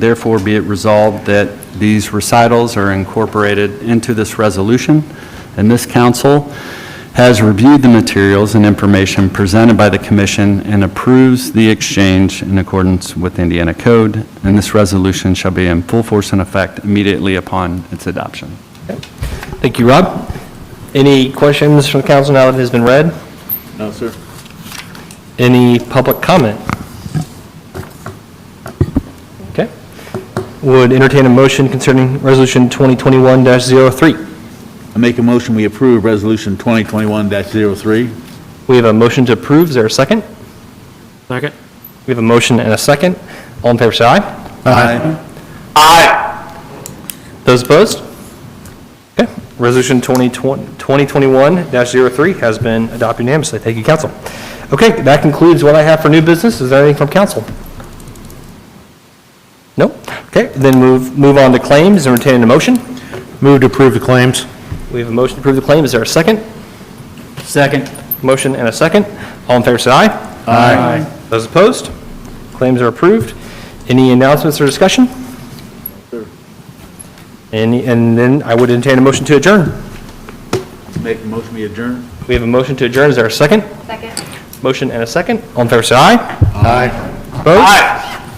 Therefore, be it resolved that these recitals are incorporated into this resolution, and this council has reviewed the materials and information presented by the commission and approves the exchange in accordance with Indiana Code, and this resolution shall be in full force and effect immediately upon its adoption. Thank you, Rob. Any questions from the council now that it has been read? No, sir. Any public comment? Okay. Would entertain a motion concerning Resolution 2021-03. I make a motion, we approve Resolution 2021-03. We have a motion to approve. Is there a second? Second. We have a motion and a second. All in favor, say aye. Aye. Those opposed? Okay. Resolution 2020 2021-03 has been adopted unanimously. Thank you, council. Okay, that concludes what I have for new business. Is there anything from council? No? Okay, then move, move on to claims. Entertaining a motion. Move to approve the claims. We have a motion to approve the claim. Is there a second? Second. Motion and a second. All in favor, say aye. Aye. Those opposed? Claims are approved. Any announcements or discussion? Any, and then I would entertain a motion to adjourn. Make a motion, we adjourn. We have a motion to adjourn. Is there a second? Second. Motion and a second. All in favor, say aye. Aye. Opposed? Aye.